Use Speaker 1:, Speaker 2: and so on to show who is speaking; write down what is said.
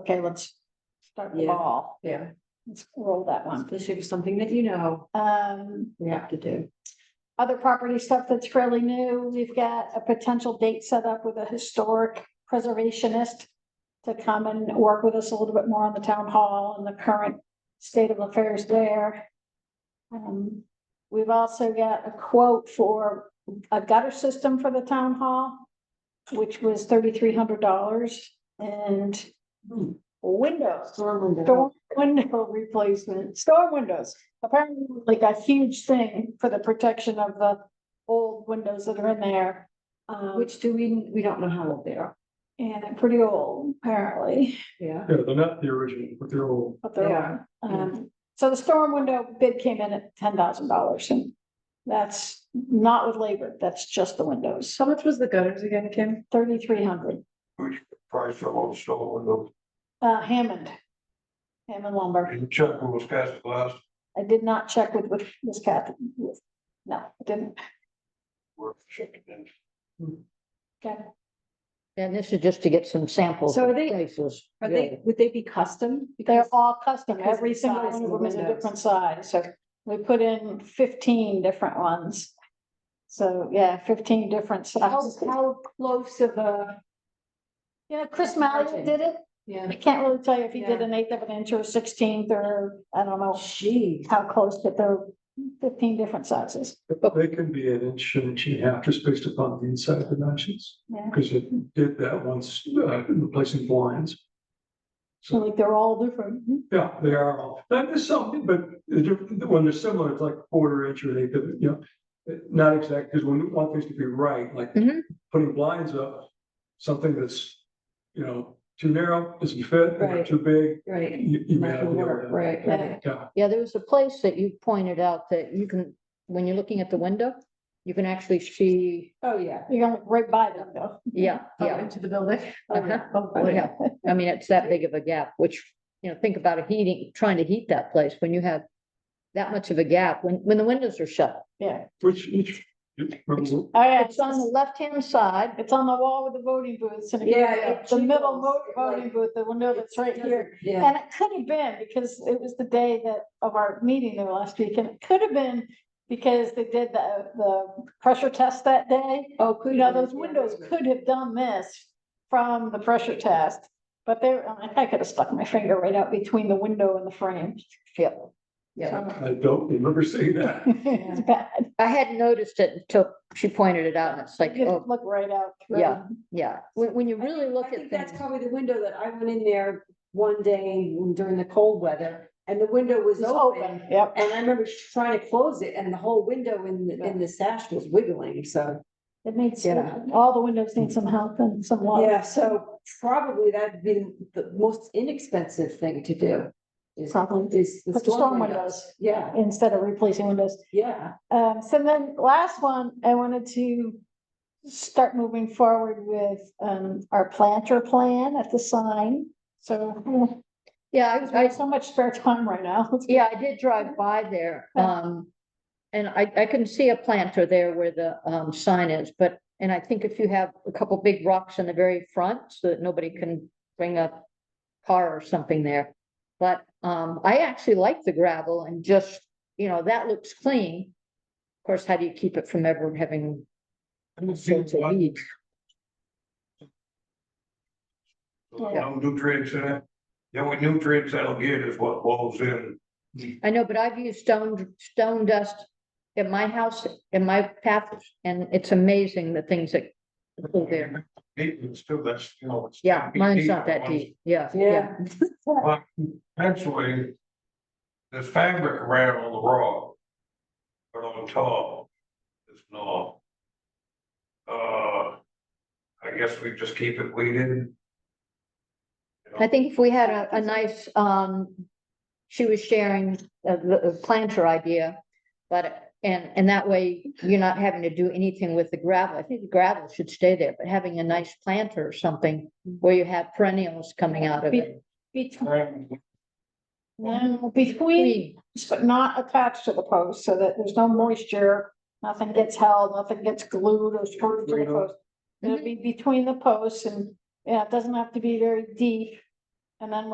Speaker 1: Okay, let's start the
Speaker 2: Yeah.
Speaker 1: ball.
Speaker 2: Yeah,
Speaker 1: Let's roll that one.
Speaker 2: this is something that you know
Speaker 1: Um,
Speaker 2: we have to do.
Speaker 1: other property stuff that's fairly new, we've got a potential date set up with a historic preservationist to come and work with us a little bit more on the town hall and the current state of affairs there. Um, we've also got a quote for a gutter system for the town hall, which was thirty-three hundred dollars and
Speaker 2: Hmm.
Speaker 1: windows Storm window replacement, storm windows, apparently like a huge thing for the protection of the old windows that are in there. Um, which,
Speaker 2: Which do we, we don't know how old they are.
Speaker 1: and pretty old apparently,
Speaker 2: Yeah.
Speaker 3: Yeah, they're not the original, but they're all,
Speaker 1: but
Speaker 2: They
Speaker 1: they're,
Speaker 2: are,
Speaker 1: um, so the storm window bid came in at ten thousand dollars and that's not with labor, that's just the windows,
Speaker 2: So much was the gutters again, Kim?
Speaker 1: thirty-three hundred,
Speaker 4: price of all stone windows.
Speaker 1: uh, Hammond. Hammond lumber,
Speaker 4: You check with Wisconsin glass,
Speaker 1: I did not check with, with Ms. Kathy, no, I didn't,
Speaker 4: we're checking in.
Speaker 1: okay.
Speaker 5: And this is just to get some samples.
Speaker 2: So are
Speaker 5: of
Speaker 2: they-
Speaker 5: Places.
Speaker 2: Are they, would they be custom?
Speaker 1: They're all custom,
Speaker 2: because
Speaker 1: every
Speaker 2: the
Speaker 1: single
Speaker 2: size
Speaker 1: one of
Speaker 2: of the
Speaker 1: them is a
Speaker 2: windows.
Speaker 1: different size, so we put in fifteen different ones. So, yeah, fifteen different
Speaker 2: How,
Speaker 1: sizes.
Speaker 2: how close of a,
Speaker 1: You know, Chris Malley
Speaker 2: Margin.
Speaker 1: did it,
Speaker 2: yeah,
Speaker 1: I can't really tell you if he did
Speaker 2: Yeah.
Speaker 1: an eighth of an inch or a sixteenth or, I don't know
Speaker 2: Oh, geez.
Speaker 1: how close, but they're fifteen different sizes.
Speaker 3: they can be an inch, an inch and a half, just based upon the inside dimensions.
Speaker 1: Yeah.
Speaker 3: Because it did that once, uh, replacing blinds.
Speaker 1: So like they're all different.
Speaker 2: Mm-hmm.
Speaker 3: Yeah, they are all, that is something, but the diff- when they're similar, it's like quarter inch or eighth, of- you know. Not exact, because when we want things to be right, like
Speaker 5: Mhm.
Speaker 3: putting blinds up, something that's, you know, too narrow, doesn't fit, or
Speaker 2: Right.
Speaker 3: too big,
Speaker 2: Right.
Speaker 3: you, you may
Speaker 2: Not
Speaker 3: not
Speaker 2: gonna
Speaker 3: be
Speaker 2: work,
Speaker 3: able to.
Speaker 2: Right, right.
Speaker 3: Yeah,
Speaker 5: Yeah, there was a place that you pointed out that you can, when you're looking at the window, you can actually see,
Speaker 2: Oh, yeah.
Speaker 1: You're gonna look right by them though.
Speaker 5: yeah,
Speaker 2: Yeah,
Speaker 5: yeah.
Speaker 2: Oh, into the building.
Speaker 5: Uh-huh. Oh, yeah. I mean, it's that big of a gap, which, you know, think about a heating, trying to heat that place when you have that much of a gap, when, when the windows are shut.
Speaker 1: Yeah, Oh,
Speaker 3: which, each. remember-
Speaker 1: all right,
Speaker 5: It's on the left-hand side.
Speaker 1: it's on the wall with the voting booths and
Speaker 2: Yeah,
Speaker 1: again,
Speaker 2: it
Speaker 1: the middle
Speaker 2: jiggles,
Speaker 1: vo-
Speaker 2: it like-
Speaker 1: voting booth, the
Speaker 2: Oh,
Speaker 1: window that's right here.
Speaker 2: Yeah.
Speaker 1: And it could have been because it was the day that of our meeting there last week and it could have been because they did the, the pressure test that day.
Speaker 2: Oh,
Speaker 1: You
Speaker 2: could.
Speaker 1: know, those windows could have done this from the pressure test. But they, I mean, I could have stuck my finger right out between the window and the frame.
Speaker 5: Yep. Yeah,
Speaker 3: I don't remember seeing that.
Speaker 1: It's bad.
Speaker 5: I hadn't noticed it until she pointed it out and it's like,
Speaker 1: You just
Speaker 5: oh,
Speaker 1: Look right out. through.
Speaker 5: Yeah. yeah. When, when you
Speaker 2: I
Speaker 5: really
Speaker 2: think-
Speaker 5: look
Speaker 2: I
Speaker 5: at
Speaker 2: think
Speaker 5: things.
Speaker 2: That's probably the window that I went in there one day during the cold weather and the window was
Speaker 1: It's
Speaker 2: open.
Speaker 1: open, yep.
Speaker 2: And I remember trying to close it and the whole window in, the- in the sash was wiggling, so.
Speaker 1: It needs,
Speaker 2: Yeah.
Speaker 1: all the windows need some help and some love.
Speaker 2: Yeah, so Um, probably that'd be the most inexpensive thing to do. Is,
Speaker 1: Probably.
Speaker 2: is the
Speaker 1: Put the storm
Speaker 2: storm
Speaker 1: windows
Speaker 2: windows. Yeah,
Speaker 1: instead of replacing windows.
Speaker 2: yeah.
Speaker 1: Um, so then last one, I wanted to start moving forward with, um, our planter plan at the sign. So
Speaker 5: Yeah,
Speaker 1: we
Speaker 5: I, I
Speaker 1: have so much spare time right now.
Speaker 5: Yeah, I did drive by there,
Speaker 1: Yeah.
Speaker 5: um, and I, I can see a planter there where the, um, sign is, but, and I think if you have a couple big rocks in the very front, so that nobody can bring a car or something there. But, um, I actually like the gravel and just, you know, that looks clean. Of course, how do you keep it from ever having sorts of weeds?
Speaker 4: No nutrients in it. The only nutrients that'll get is what blows in.
Speaker 5: I know, but I've used stone, stone dust at my house, in my path, and it's amazing the things that go there.
Speaker 4: Deepens too, that's, you know. it's
Speaker 5: Yeah,
Speaker 4: gotta be
Speaker 5: mine's not
Speaker 4: deep.
Speaker 5: that deep, yeah, yeah,
Speaker 2: Yeah,
Speaker 4: But Actually, there's fabric around on the rock. But on top, it's not. Uh, I guess we just keep it weeded.
Speaker 5: I think if we had a, a nice, um, she was sharing uh, the the planter idea. But, and, and that way you're not having to do anything with the gravel, I think the gravel should stay there, but having a nice planter or something. Where you have perennials coming out of it.
Speaker 1: Between,
Speaker 4: And
Speaker 1: no, between, but not attached to the post so that there's no moisture. Nothing gets held, nothing gets glued or screwed to the
Speaker 3: Freedom.
Speaker 5: Mm-hmm.
Speaker 1: post. It'll be between the posts and, yeah, it doesn't have to be very deep. And then